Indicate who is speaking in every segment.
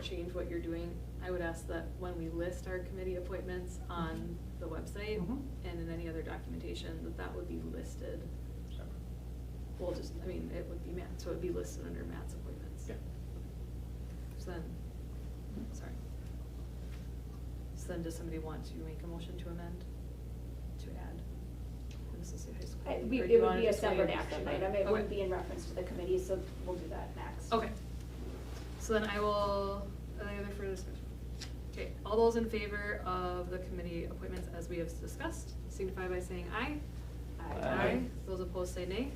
Speaker 1: change what you're doing, I would ask that when we list our committee appointments on the website
Speaker 2: Mhm.
Speaker 1: and in any other documentation, that that would be listed. Well, just, I mean, it would be Matt, so it would be listed under Matt's appointments.
Speaker 3: Yeah.
Speaker 1: So then, sorry. So then, does somebody want to make a motion to amend, to add the Mississippi High School?
Speaker 4: I-
Speaker 1: Or
Speaker 4: we-
Speaker 1: do you
Speaker 4: It would
Speaker 1: wanna
Speaker 4: be a
Speaker 1: just wait
Speaker 4: separate
Speaker 1: and
Speaker 4: action
Speaker 1: see?
Speaker 4: item, it wouldn't
Speaker 1: Okay.
Speaker 4: be in reference to the committee, so we'll do that next.
Speaker 1: Okay. So then I will, any other further discussion? Okay, all those in favor of the committee appointments as we have discussed, signify by saying aye.
Speaker 4: Aye.
Speaker 3: Aye.
Speaker 1: Those opposed say nay.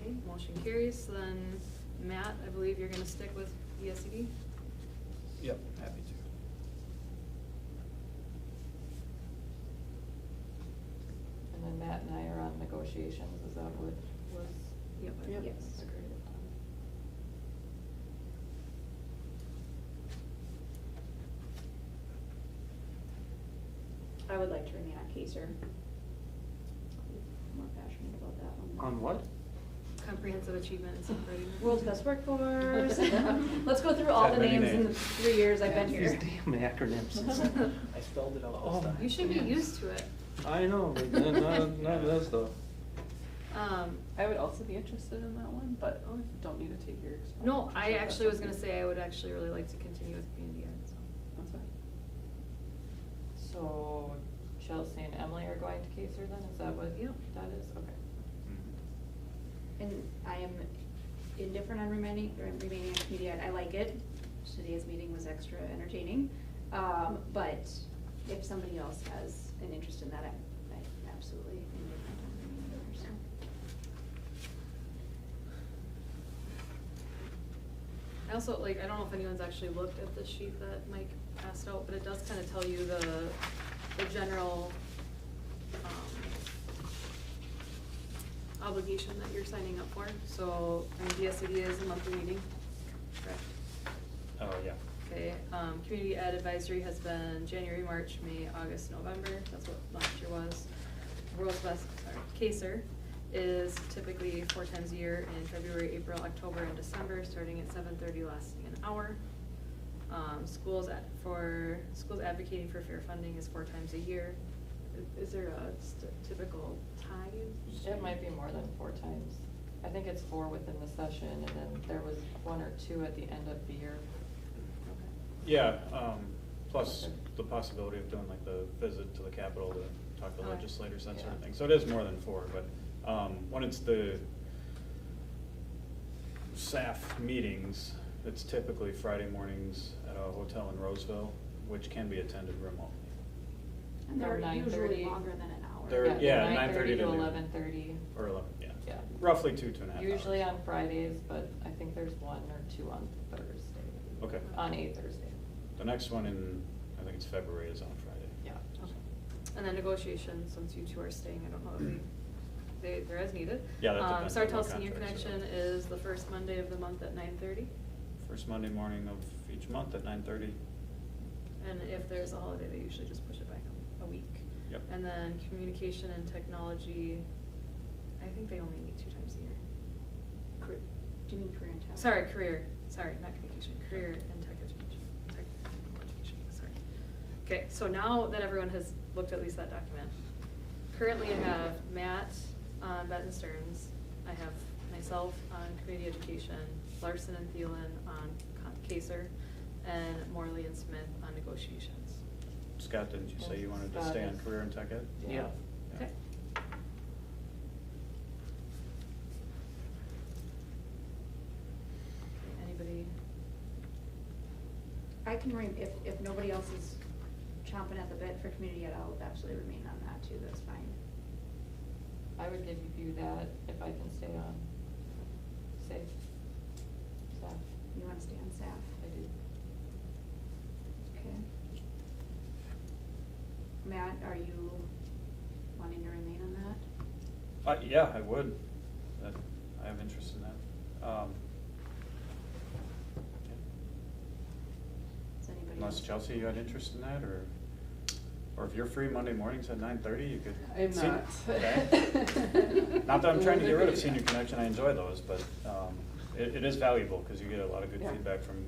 Speaker 1: Okay, motion carries. So Then, Matt, I believe you're gonna stick with E ESCD?
Speaker 3: Yep, happy to.
Speaker 5: And then Matt and I are on negotiations, is that what was?
Speaker 1: Yep.
Speaker 2: Yep.
Speaker 4: Yes.
Speaker 5: Agreed upon?
Speaker 4: I would like to remain on CASER. More passionate about that one.
Speaker 3: On what?
Speaker 1: Comprehensive Achievement and Separating.
Speaker 4: World's Best Workforce. Let's go through all
Speaker 3: That
Speaker 4: the
Speaker 3: many
Speaker 4: names in the
Speaker 3: names.
Speaker 4: three years I've been here.
Speaker 3: These damn acronyms. I spelled it out this
Speaker 2: Oh.
Speaker 3: time.
Speaker 1: You should be used to it.
Speaker 3: I know, but none, none none of that stuff.
Speaker 1: Um,
Speaker 5: I would also be interested in that one, but
Speaker 1: Okay.
Speaker 5: don't need to take your.
Speaker 1: no, I actually was gonna say I would actually really like to continue with community ed, so.
Speaker 5: That's fine. So Chelsea and Emily are going to Kaser then, is that what?
Speaker 1: Yep.
Speaker 5: That is, okay.
Speaker 4: And I am indifferent on remaining, or remaining on committee ed, I like it, today's meeting was extra entertaining. Um, but if somebody else has an interest in that, I'm, I'm absolutely indifferent on remaining there, so.
Speaker 1: I also, like, I don't know if anyone's actually looked at the sheet that Mike passed out, but it does kind of tell you the, the general, um, obligation that you're signing up for, so, I mean, DSCD is a monthly meeting, correct?
Speaker 3: Oh, yeah.
Speaker 1: Okay, um, community ed advisory has been January, March, May, August, November, that's what last year was. World's Best, sorry, CASER is typically four times a year in February, April, October, and December, starting at seven thirty, lasting an hour. Um, schools at, for, schools advocating for fair funding is four times a year. I- Is there a st- typical time?
Speaker 5: It might be more than four times. I think it's four within the session and then there was one or two at the end of the year.
Speaker 1: Okay.
Speaker 6: Yeah, um, plus the possibility of doing like the visit to the Capitol to talk to
Speaker 1: Alright.
Speaker 6: legislators, that sort of
Speaker 5: Yeah.
Speaker 6: thing. So it is more than four, but, um, when it's the SAF meetings, it's typically Friday mornings at a hotel in Roseville, which can be attended remotely.
Speaker 4: And
Speaker 5: Or
Speaker 4: they're
Speaker 5: 9:30.
Speaker 4: usually longer than an hour.
Speaker 6: They're- yeah,
Speaker 5: nine to
Speaker 6: 9:30 to noon.
Speaker 5: eleven thirty.
Speaker 6: Or eleven, yeah.
Speaker 5: Yeah.
Speaker 6: Roughly two, two and a half hours.
Speaker 5: Usually on Fridays, but I think there's one or two on Thursday.
Speaker 6: Okay.
Speaker 5: On a Thursday,
Speaker 6: The next one in, I think it's February, is on Friday.
Speaker 5: yeah.
Speaker 1: Okay. And then negotiations, since you two are staying, I don't know if we, they, they're as needed.
Speaker 6: Yeah, that
Speaker 1: Um,
Speaker 6: depends on
Speaker 1: Sartell
Speaker 6: the
Speaker 1: Senior
Speaker 6: contracts, so-
Speaker 1: Connection is the first Monday of the month at nine thirty,
Speaker 6: First Monday morning of each month at nine thirty.
Speaker 1: and if there's a holiday, they usually just push it back a a week.
Speaker 6: Yep.
Speaker 1: And then communication and technology, I think they only meet two times a year.
Speaker 4: Cor- Do you mean career and talent?
Speaker 1: Sorry, career, sorry, not communication, career and tech education, tech education, sorry. Okay, so now that everyone has looked at least that document, currently I have Matt on Benton Stearns, I have myself on community education, Larson and Thielen on con- Kaser, and Morley and Smith on negotiations.
Speaker 6: Scott, didn't you say you wanted to
Speaker 5: Scott
Speaker 6: stay on
Speaker 5: is-
Speaker 6: career and tech ed?
Speaker 3: Yeah.
Speaker 1: Okay? Anybody?
Speaker 4: I can re, if, if nobody else is chomping at the bit for community ed, I'll absolutely remain on that too, that's fine.
Speaker 5: I would give you that if I can stay on, safe. So,
Speaker 4: You wanna stay on staff?
Speaker 5: I do.
Speaker 4: Okay. Matt, are you wanting to remain on that?
Speaker 6: Uh, yeah, I would. That, I have interest in that. Um,
Speaker 4: Does anybody?
Speaker 6: Unless
Speaker 4: else-
Speaker 6: Chelsea, you had interest in that, or, or if you're free Monday mornings at nine thirty, you could.
Speaker 2: I'm
Speaker 6: Sen-
Speaker 2: not.
Speaker 6: okay. Not that I'm trying to get rid of senior connection, I enjoy those, but, um, it, it is valuable, cause you get a lot of good
Speaker 5: Yeah.
Speaker 6: feedback from